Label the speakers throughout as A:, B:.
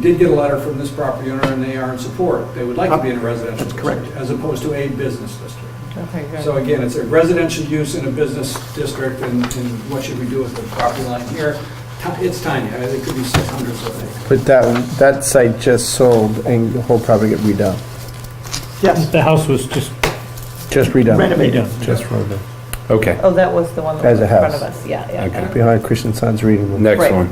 A: did get a letter from this property owner, and they are in support. They would like to be in a residential district.
B: Correct.
A: As opposed to a business district.
C: Okay,
A: So
C: good.
A: again, it's a residential use in a business district, and and what should we do with the property line here? Ti- It's tiny, I think it could be six hundredths of an acre.
D: But that, that site just sold and the whole property got redone,
B: Yes,
E: The house was just
D: just redone,
B: renovated.
E: redone.
D: just redone. Okay,
C: Oh, that was the one that
D: As
C: was
D: a
C: in front of
D: house.
C: us, yeah, yeah.
D: Okay.
C: yeah.
D: behind Christian Science Reading Room.
C: Right.
F: Next one.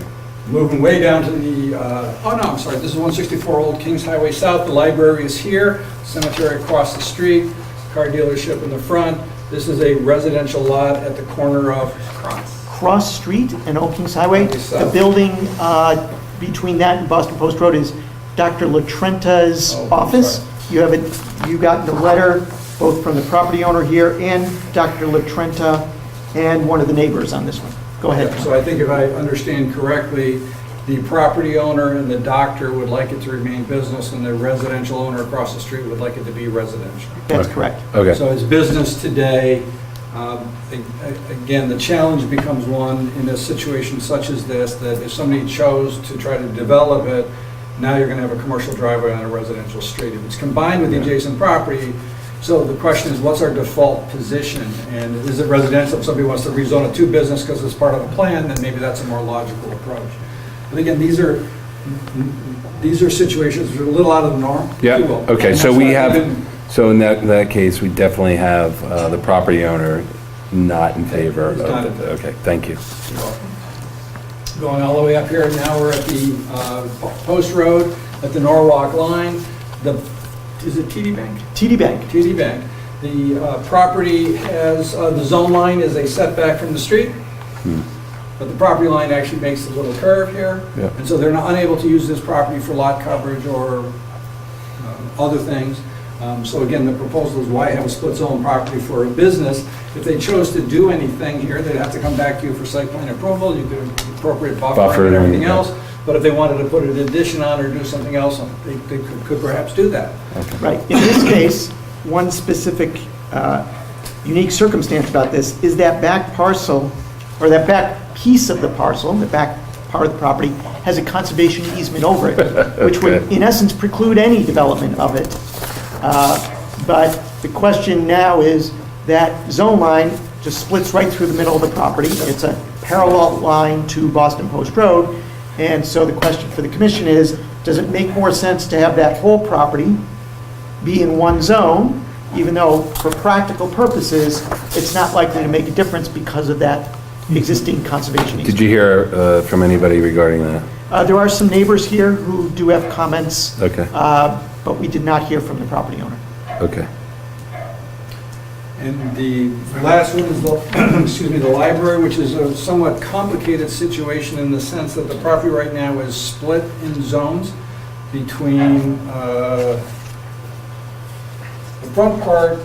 A: Moving way down to the, uh, oh no, I'm sorry, this is 164 Old Kings Highway South, the library is here, cemetery across the street, car dealership in the front. This is a residential lot at the corner of Cross.
B: Cross Street and Old Kings Highway.
A: Okay, so-
B: The building uh, between that and Boston Post Road is Dr. Latrenta's
A: Oh, I'm
B: office. You have it, you got the letter both from the property owner here and Dr. Latrenta and one of the neighbors on this one. Go ahead.
A: So I think if I understand correctly, the property owner and the doctor would like it to remain business, and the residential owner across the street would like it to be residential.
B: That's correct.
F: Okay,
A: So it's business today. Um, a- a- Again, the challenge becomes one in a situation such as this, that if somebody chose to try to develop it, now you're going to have a commercial driveway on a residential street. If it's combined with the adjacent property, so the question is, what's our default position? And is it residential? If somebody wants to rezone it to business because it's part of a plan, then maybe that's a more logical approach. But again, these are, these are situations that are a little out of the norm. if you
F: yeah,
A: will.
F: okay,
A: And
F: so
A: that's
F: we
A: why
F: have,
A: didn't-
F: so in that, that case, we definitely have uh, the property owner not in favor of,
A: He's not in favor.
F: okay, thank you.
A: Going all the way up here, now we're at the uh, Post Road, at the Norwalk line, the, is it TD Bank?
B: TD Bank.
A: TD Bank. The uh, property has, uh, the zone line is a setback from the street, but the property line actually makes a little curve here.
F: Yeah.
A: And so they're not unable to use this property for lot coverage or uh, other things. Um, So again, the proposal is why have a split zone property for a business? If they chose to do anything here, they'd have to come back to you for site plan approval, you could appropriate buffer
F: Buffer
A: and
F: and-
A: everything else. But if they wanted to put an addition on or do something else, they they could- could perhaps do that.
B: Right. In this case, one specific uh, unique circumstance about this is that back parcel, or that back piece of the parcel, the back part of the property, has a conservation easement over it, which would, in essence, preclude any development of it. Uh, But the question now is, that zone line just splits right through the middle of the property. It's a parallel line to Boston Post Road, and so the question for the commission is, does it make more sense to have that whole property be in one zone, even though for practical purposes, it's not likely to make a difference because of that existing conservation
F: Did
B: easement.
F: you hear uh, from anybody regarding that?
B: Uh, There are some neighbors here who do have comments,
F: Okay,
B: uh, but we did not hear from the property owner.
F: okay.
A: And the last one is the, excuse me, the library, which is a somewhat complicated situation in the sense that the property right now is split in zones between, uh, the front part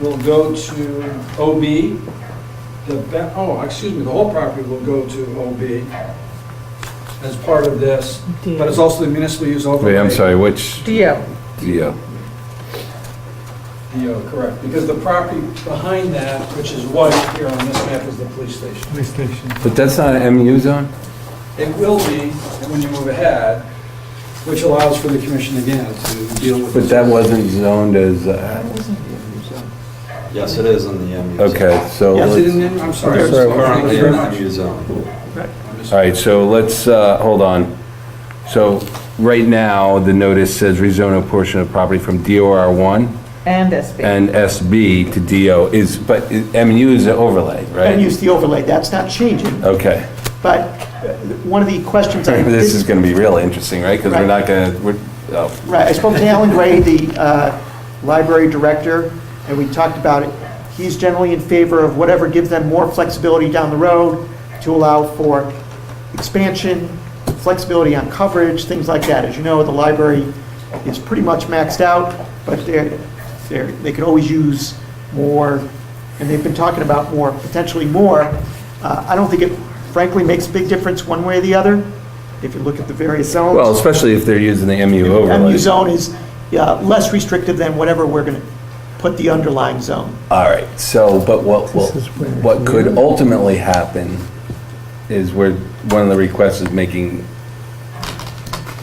A: will go to OB, the, ba- oh, excuse me, the whole property will go to OB as part of this, but it's also the municipal use overlay.
F: Wait, I'm sorry, which,
C: DO,
F: yeah,
A: Yeah, correct, because the property behind that, which is white here on this map, is the police station.
E: Police station.
F: but that's not an MU zone?
A: It will be when you move ahead, which allows for the commission again to deal with.
F: But that wasn't zoned as, uh,
G: Yes, it is in the MU. zone.
F: okay, so,
B: Yes,
A: Is it
F: let's-
A: in, there? I'm sorry. I'm
D: Sorry,
A: sorry. Thank
G: Currently
A: you
G: in
A: very
G: the
A: much.
G: MU zone.
F: all right, so let's, uh, hold on. So, right now, the notice says rezone a portion of property from DOR 1
C: and SB.
F: and SB to DO is, but MU is an overlay, right?
B: And use the overlay, that's not changing,
F: Okay.
B: but uh, one of the questions I
F: This is
B: did,
F: going to be really interesting, right? Because we're not
B: Right.
F: going to, we're, oh,
B: right, I spoke to Alan Gray, the uh, library director, and we talked about it. He's generally in favor of whatever gives them more flexibility down the road to allow for expansion, flexibility on coverage, things like that. As you know, the library is pretty much maxed out, but they're, they're, they could always use more, and they've been talking about more, potentially more. Uh, I don't think it frankly makes a big difference one way or the other, if you look at the various zones.
F: well, especially if they're using the MU overlay.
B: MU zone is yeah, less restrictive than whatever we're going to put the underlying zone.
F: All right, so, but what, what-
D: This is where-
F: what could ultimately happen is where, one of the requests is making